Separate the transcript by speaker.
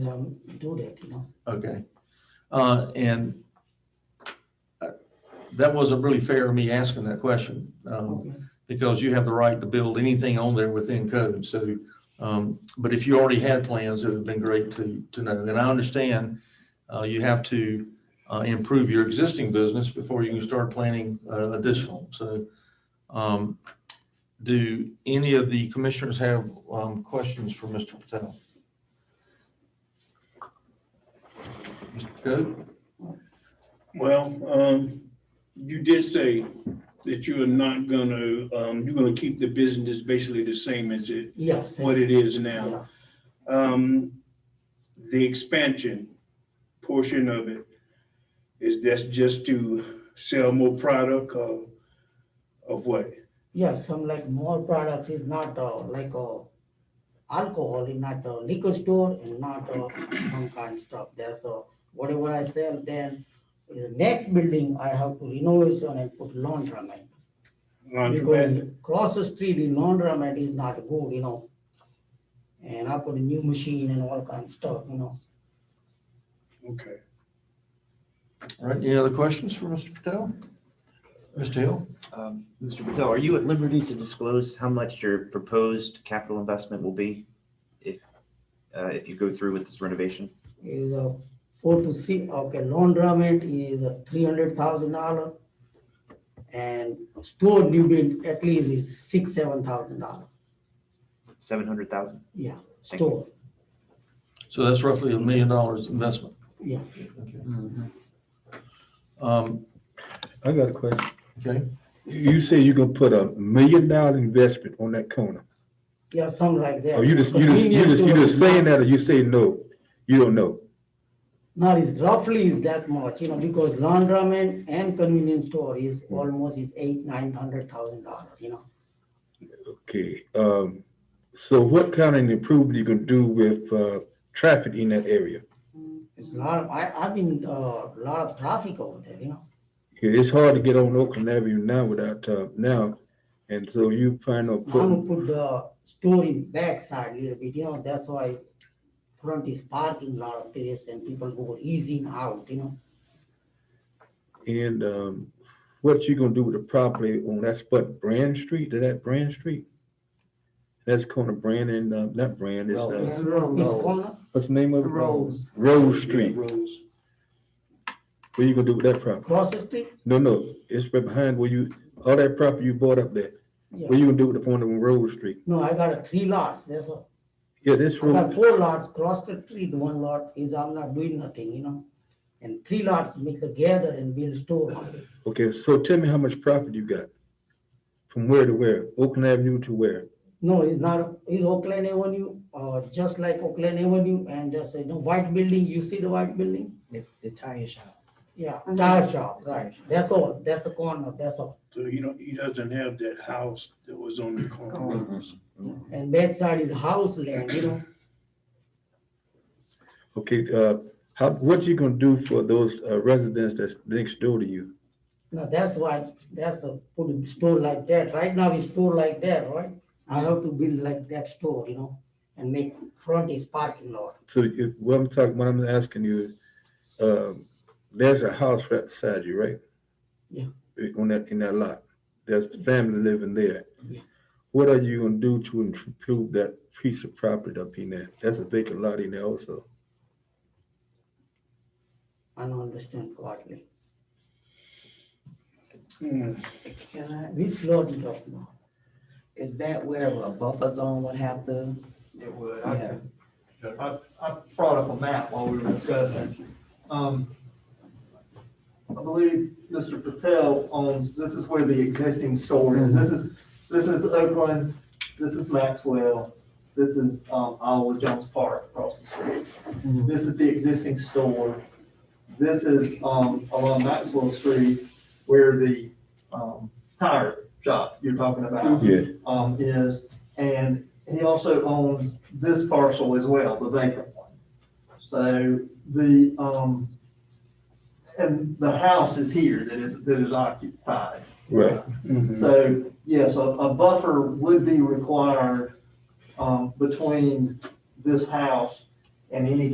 Speaker 1: um, do that, you know.
Speaker 2: Okay. Uh, and uh, that wasn't really fair of me asking that question, um,
Speaker 1: Okay.
Speaker 2: because you have the right to build anything on there within code. So, um, but if you already had plans, it would have been great to, to know. And I understand, uh, you have to, uh, improve your existing business before you can start planning, uh, additional. So, um, do any of the commissioners have, um, questions for Mr. Patel? Mr. Code?
Speaker 3: Well, um, you did say that you are not gonna, um, you're gonna keep the business basically the same as it,
Speaker 1: Yeah, same.
Speaker 3: what it is now.
Speaker 1: Yeah,
Speaker 3: Um, the expansion portion of it, is that's just to sell more product or, of what?
Speaker 1: yeah, some like more products is not uh, like uh, alcohol, is not a liquor store and not uh, some kind of stuff there. So whatever I sell, then in the next building, I have to renovation and put laundromat. Because
Speaker 3: Laundromat?
Speaker 1: across the street, the laundromat is not good, you know. And I put a new machine and all kind of stuff, you know.
Speaker 3: Okay.
Speaker 2: All right, any other questions for Mr. Patel? Mr. Hill?
Speaker 4: Um, Mr. Patel, are you at liberty to disclose how much your proposed capital investment will be if, uh, if you go through with this renovation?
Speaker 1: is a four to six, okay, laundromat is a three hundred thousand dollar. And store new build at least is six, seven thousand dollar,
Speaker 4: Seven hundred thousand?
Speaker 1: yeah,
Speaker 4: Thank you.
Speaker 1: store,
Speaker 2: So that's roughly a million dollars investment.
Speaker 1: yeah.
Speaker 2: Okay. Um,
Speaker 5: I got a question.
Speaker 2: okay,
Speaker 5: You say you're gonna put a million dollar investment on that corner?
Speaker 1: Yeah, something like that.
Speaker 5: Or Oh, you just, you just, you
Speaker 1: Convenience
Speaker 5: just, you
Speaker 1: store
Speaker 5: just
Speaker 1: is
Speaker 5: saying
Speaker 1: not-
Speaker 5: that or you say no? You don't know?
Speaker 1: Not is roughly is that much, you know, because laundromat and convenience store is
Speaker 5: Hmm.
Speaker 1: almost is eight, nine hundred thousand dollar, you know.
Speaker 5: Okay, um, so what kind of improvement you gonna do with, uh, traffic in that area?
Speaker 1: It's a lot, of- I, I've been, uh, lot of traffic over there, you know,
Speaker 5: Yeah, It's hard to get on Oakland Avenue now without, uh, now, and so you plan on
Speaker 1: I'm gonna
Speaker 5: putting,
Speaker 1: put the store in backside a little bit, you know, that's why front is parking lot of place and people go easing out, you know.
Speaker 5: and, um, what you gonna do with the property on, that's what, Brand Street, is that Brand Street? That's corner Brand and, uh, not Brand, it's,
Speaker 1: It's
Speaker 5: uh,
Speaker 1: corner.
Speaker 5: what's the name of it? Rose. Rose Street.
Speaker 3: Rose.
Speaker 5: What you gonna do with that property?
Speaker 1: Cross the street,
Speaker 5: No, no, it's right behind where you, all that property you bought up there. What
Speaker 1: yeah,
Speaker 5: you gonna do with the one on Rose Street?
Speaker 1: no, I got a three lots, that's all,
Speaker 5: Yeah, this
Speaker 1: I got
Speaker 5: road,
Speaker 1: four lots, cross the street, one lot is I'm not doing nothing, you know. And three lots mix together and build store, on it.
Speaker 5: okay, so tell me how much profit you got? From where to where? Oakland Avenue to where?
Speaker 1: no, it's not, it's Oakland Avenue, uh, just like Oakland Avenue, and just, you know, white building, you see the white building?
Speaker 6: The, the tire shop.
Speaker 1: Yeah, tire shop, right,
Speaker 6: Tire shop.
Speaker 1: that's all, that's the corner, that's all.
Speaker 3: So you don't, he doesn't have that house that was on the corner.
Speaker 1: And backside is house land, you know,
Speaker 5: Okay, uh, how, what you gonna do for those uh, residents that's next door to you?
Speaker 1: now that's why, that's a, put a store like that, right now it's store like that, right? I have to build like that store, you know, and make front is parking lot,
Speaker 5: So if, what I'm talking, what I'm asking you is, um, there's a house right beside you, right?
Speaker 1: Yeah.
Speaker 5: Eh, On that, in that lot, there's the family living there.
Speaker 1: Yeah.
Speaker 5: What are you gonna do to improve that piece of property up in there? That's a vacant lot in there also.
Speaker 1: I don't understand correctly.
Speaker 3: Hmm.
Speaker 6: Can I,
Speaker 1: Which lot you talking about?
Speaker 6: is that where a buffer zone would have to?
Speaker 7: It would.
Speaker 6: Yeah.
Speaker 7: I, I, I brought up a map while we were discussing. Um, I believe Mr. Patel owns, this is where the existing store is. This is, this is Oakland, this is Maxwell, this is, um, Iowa Jones Park across the street. This is the existing store. This is, um, along Maxwell Street where the, um, tire shop you're talking about
Speaker 5: Yeah.
Speaker 7: um, is, and he also owns this parcel as well, the vacant one. So the, um, and the house is here that is, that is occupied.
Speaker 5: Mm-hmm. Right,
Speaker 7: So, yes, a, a buffer would be required, um, between this house and any